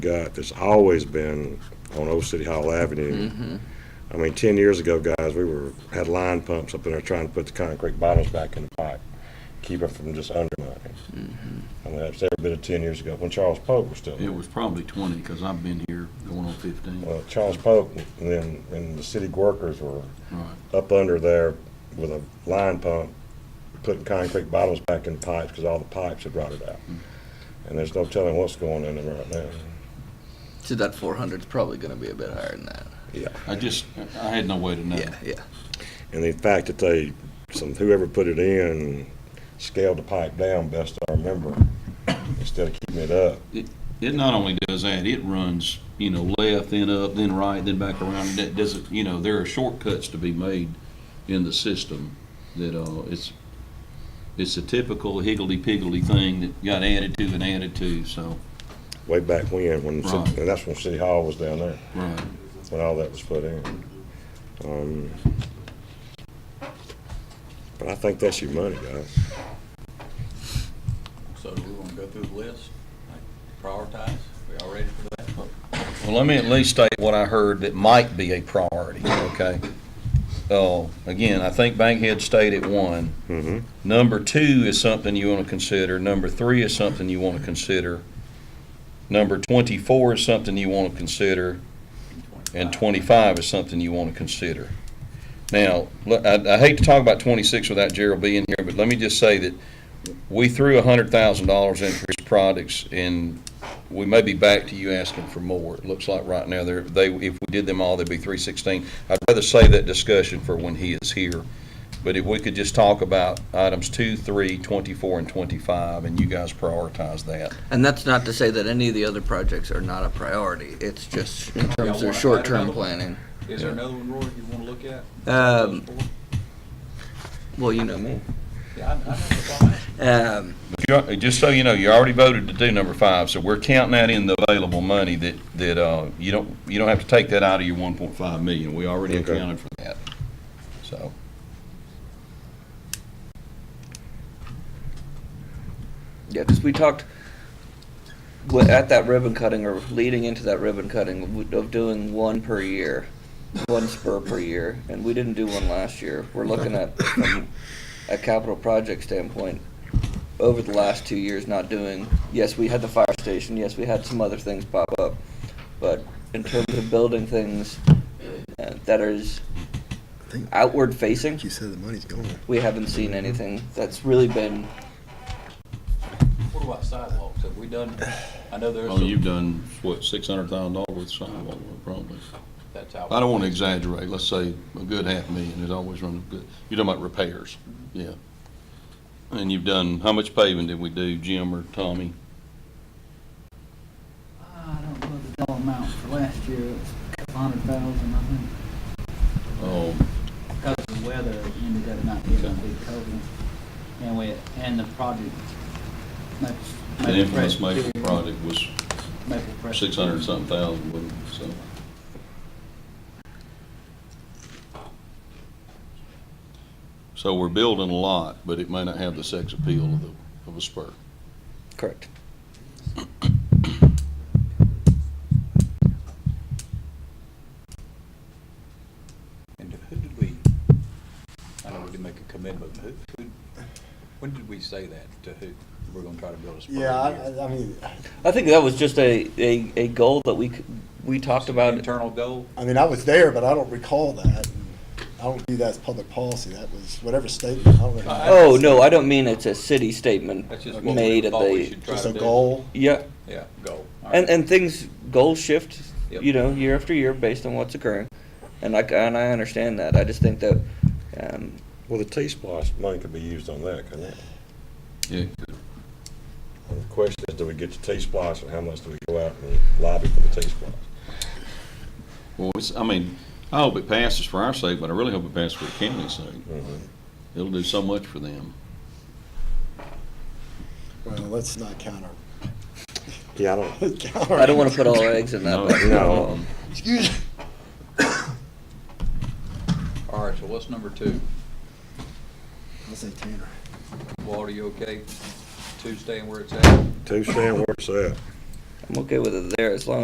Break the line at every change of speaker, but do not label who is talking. got that's always been on Old City Hall Avenue. I mean, ten years ago, guys, we were, had line pumps up in there trying to put the concrete bottles back in the pipe, keep it from just undermining. I mean, that's every bit of ten years ago, when Charles Pope was still.
It was probably twenty, because I've been here going on fifteen.
Well, Charles Pope and then, and the city workers were
Right.
up under there with a line pump, putting concrete bottles back in pipes because all the pipes had rotted out. And there's no telling what's going in them right now.
So that 400 is probably going to be a bit higher than that.
I just, I had no way to know.
Yeah, yeah.
And the fact that they, some, whoever put it in, scaled the pipe down best I remember, instead of keeping it up.
It not only does that, it runs, you know, left, then up, then right, then back around, and that doesn't, you know, there are shortcuts to be made in the system that, uh, it's, it's a typical higgledy-piggledy thing that got added to and added to, so,
Way back when, when, the city-
Right.
and that's when City Hall was down there,
right.
when all that was put in. Um, But I think that's your money, guys.
So do we want to go through the list, like prioritize? We all ready for that?
Well, let me at least state what I heard that might be a priority, okay? Oh, again, I think Bankhead stayed at one.
Mm-hmm.
Number two is something you want to consider. Number three is something you want to consider. Number twenty-four is something you want to consider, and twenty-five is something you want to consider. Now, look, I, I hate to talk about twenty-six without Gerald being here, but let me just say that we threw a hundred thousand dollars into his products, and we may be back to you asking for more. It looks like right now, they're, they, if we did them all, they'd be three sixteen. I'd rather save that discussion for when he is here. But if we could just talk about items two, three, twenty-four, and twenty-five, and you guys prioritize that.
And that's not to say that any of the other projects are not a priority. It's just in terms of short-term planning.
Is there another one, Roy, you want to look at?
Um, well, you know me.
Yeah, I, I know what I'm asking.
Um,
But you, just so you know, you already voted to do number five, so we're counting that in the available money that, that, uh, you don't, you don't have to take that out of your one point five million. We already
Okay.
accounted for that. So,
yeah, because we talked wi- at that ribbon cutting or leading into that ribbon cutting w- of doing one per year, one spur per year, and we didn't do one last year. We're looking at, from a capital project standpoint, over the last two years not doing, yes, we had the fire station, yes, we had some other things pop up, but in terms of building things uh, that is outward facing,
You said the money's gone.
we haven't seen anything that's really been
What about sidewalks? Have we done, I know there's
Well,
some,
you've done, what, six hundred thousand dollars with sidewalk, probably.
that's out.
I don't want to exaggerate, let's say a good half million is always running good, you're talking about repairs, yeah. And you've done, how much paving did we do, Jim or Tommy?
I don't know the dollar amount for last year, it was a couple hundred thousand, I think,
Um,
Oh,
because of the weather, it ended up not being a big COVID. And we, and the project, Maple.
the
Maple
infamous
Crest
Maple
Pier,
project was
Maple Crest
six hundred and something thousand, wasn't it? so. So we're building a lot, but it may not have the sex appeal of the, of a spur.
correct.
And who did we, I know we did make a commitment, but who, who, when did we say that to who? We're going to try to build a spur.
Yeah,
here.
I, I mean,
I think that was just a, a, a goal that we c- we talked about.
Internal goal?
I mean, I was there, but I don't recall that. I don't view that as public policy. That was whatever statement. I don't know.
Oh no, I don't mean it's a city statement
That's just what we
made at
thought we
the
should try to
Just
do.
a goal.
yeah,
Yeah, goal. All
and
right.
and things goals shift,
Yep.
you know, year after year based on what's occurring, and I c- and I understand that. I just think that um,
Well, the T-Splosh money could be used on that, couldn't it?
Yeah.
And the question is, do we get the T-Splosh and how much do we go out and lobby for the T-Splosh?
Well, it's, I mean, I hope it passes for our sake, but I really hope it passes for the county's sake.
Mm-hmm.
It'll do so much for them.
Well, let's not counter.
Yeah, I don't,
counter.
I don't want to put all our eggs in that.
No,
basket.
no.
Um,
Excuse me.
All right, so what's number two?
I'll say Tanner.
Walt, are you okay? Two staying where it's at?
two staying where it's at.
I'm okay with it there as long